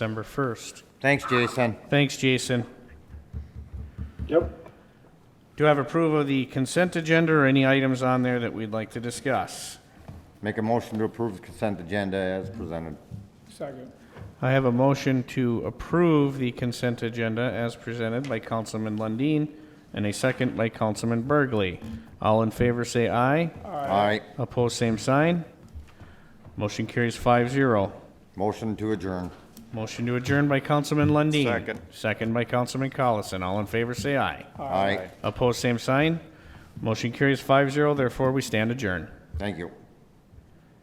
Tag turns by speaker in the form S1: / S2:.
S1: December 1st.
S2: Thanks, Jason.
S1: Thanks, Jason.
S3: Yep.
S1: Do you have approval of the consent agenda or any items on there that we'd like to discuss?
S2: Make a motion to approve the consent agenda as presented.
S3: Second.
S1: I have a motion to approve the consent agenda as presented by Councilman Lundin and a second by Councilman Burgley. All in favor say aye.
S2: Aye.
S1: Opposed, same sign. Motion carries five zero.
S2: Motion to adjourn.
S1: Motion to adjourn by Councilman Lundin.
S2: Second.
S1: Second by Councilman Collison. All in favor say aye.
S2: Aye.
S1: Opposed, same sign. Motion carries five zero, therefore we stand adjourned.
S2: Thank you.